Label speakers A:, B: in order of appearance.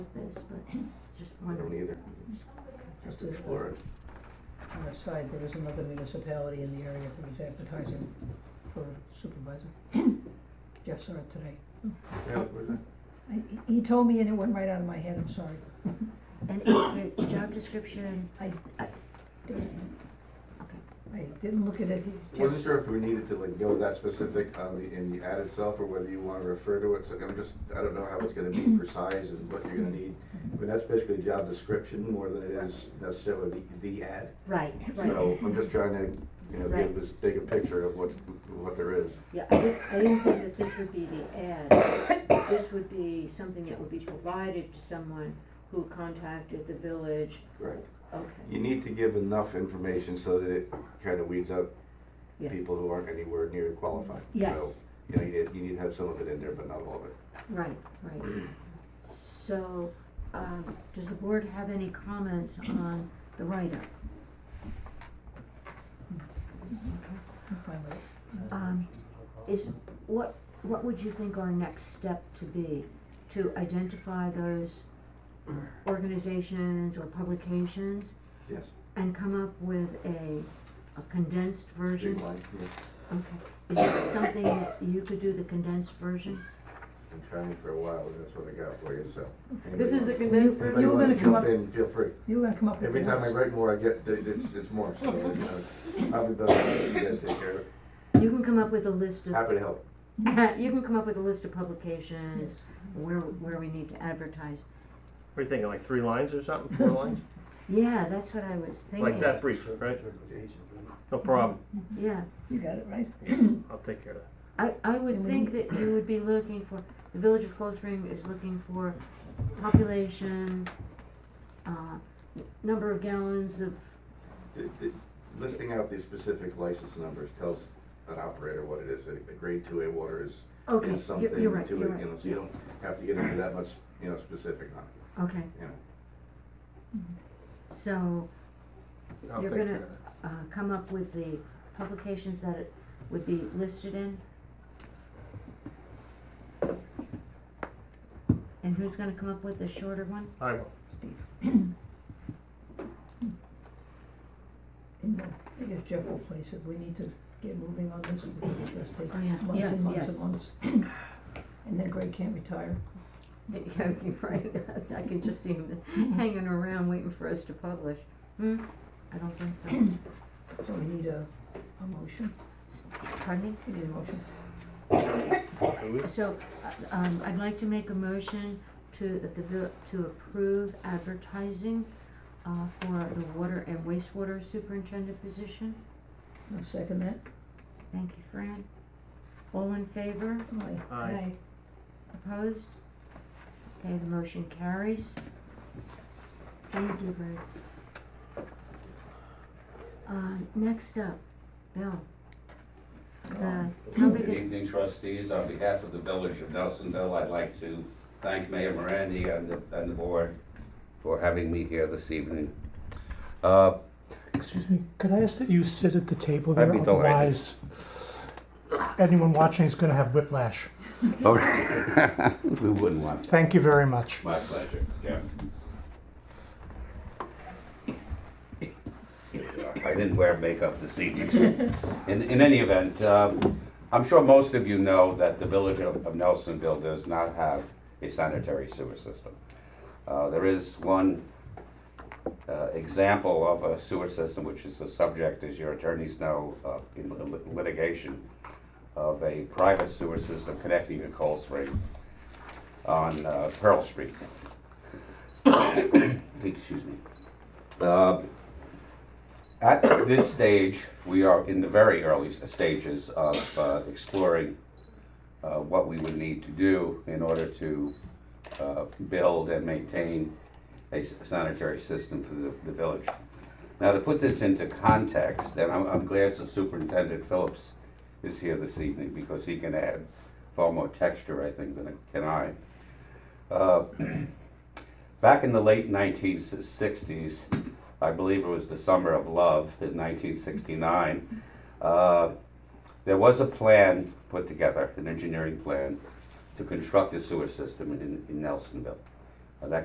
A: with this, but just
B: I don't
A: wondering.
B: either, just explore it.
C: On the side, there is another municipality in the area who is advertising for supervisor. Jeff saw it today.
B: Yeah, where's that?
C: I, he- he told me and it went right out of my head, I'm sorry.
A: And is the job description,
C: I, I,
A: is,
C: I didn't look at it, he- Jeff-
B: Wasn't sure if we needed to like go that specific on the, in the ad itself, or whether you wanna refer to it, so I'm just, I don't know how it's gonna be for size and what you're gonna need. I mean, that's basically a job description more than it is necessarily the, the ad.
A: right, right.
B: So I'm just trying to, you know,
A: Right.
B: give this bigger picture of what, what there is.
A: Yeah, I didn't, I didn't think that this would be the ad. This would be something that would be provided to someone who contacted the village.
B: Right.
A: Okay,
B: You need to give enough information so that it kinda weeds out
A: Yeah.
B: people who aren't anywhere near qualified.
A: Yes.
B: So, You know, you need, you need to have some of it in there, but not all of it.
A: right, right. So, um, does the board have any comments on the write-up?
C: I'm fine with it.
A: Um, is, what, what would you think our next step to be? To identify those organizations or publications
B: Yes.
A: and come up with a, a condensed
B: Big
A: version?
B: line, yeah.
A: Okay, is that something that you could do, the condensed version?
B: Been trying for a while, but that's what I got for you, so.
A: This is the
B: Anybody
A: condensed
B: wants-
A: version?
C: You were gonna
B: anybody
C: come
B: wants
C: up-
B: to jump in, Feel free.
C: You were gonna come up with
B: Every
C: the
B: time I
C: notes.
B: write more, I get, it's, it's more, so, you know, probably better if you guys take care of it.
A: You can come up with a list of,
B: Happy to help.
A: you can come up with a list of publications,
C: Yes.
A: where, where we need to advertise.
D: What are you thinking, like three lines or something, four lines?
A: Yeah, that's what I was thinking.
D: Like that brief, right? No problem,
A: Yeah.
C: You got it, right?
D: I'll take care of
A: I, I would
C: And we
A: think that you would be looking for, the village of Cold Spring is looking for population, uh, number of gallons of,
B: The- the- Listing out these specific license numbers tells an operator what it is. A a grade two A water is,
A: okay,
B: is something
A: you're,
B: to it,
A: you're
B: you
A: right, you're right,
B: know, so you don't have to get into that much, you know, specific on it,
A: okay,
B: you know.
A: so,
D: that. I'll
A: You're
D: take care
A: gonna-
D: of that.
A: uh, come up with the publications that it would be listed in? And who's gonna come up with the shorter one?
D: I will.
C: And uh, I guess Jeff will place it, we need to get moving on this, because it's just
A: Oh, yeah.
C: taking months
A: Yes,
C: and months
A: yes.
C: and months. And then Greg can't retire.
A: Yeah, you're right, I can just see him hanging around waiting for us to publish. Hmm, I don't think so.
C: So we need a, a motion,
A: Pardon
C: we need a motion.
D: Okay, we-
A: me? So, uh, um, I'd like to make a motion to, that the, vil- to approve advertising, uh, for the water and wastewater superintendent position.
C: I'll second that.
A: Thank you, Fran. All in favor?
C: Aye.
D: Aye.
A: Opposed? Okay, the motion carries. Thank you, Brad. Uh, next up, Bill. The, how big
E: Good
A: is,
E: evening trustees, on behalf of the village of Nelsonville, I'd like to thank Mayor Morandi and the, and the board for having me here this evening. Uh,
F: Excuse me, could I ask that you sit at the table
E: I'd
F: there?
E: be delighted.
F: Otherwise, anyone watching is going to have whiplash.
E: all right. We wouldn't want,
F: Thank you very much.
E: my pleasure, Jim. I didn't wear makeup this evening. so- In, in any event, um, I'm sure most of you know that the village of of Nelsonville does not have a sanitary sewer system. Uh, There is one uh, example of a sewer system, which is the subject, as your attorneys know, uh, in lit- litigation, of a private sewer system connecting to Cold Spring on uh, Pearl Street. Excuse me. Uh, At this stage, we are in the very early s- stages of uh, exploring uh, what we would need to do in order to uh, build and maintain a s- sanitary system for the- the village. Now, to put this into context, and I'm- I'm glad the Superintendent Phillips is here this evening because he can add far more texture, I think, than can I. Uh, Back in the late 1960s, I believe it was the Summer of Love in 1969, uh, there was a plan put together, an engineering plan, to construct a sewer system in, in Nelsonville.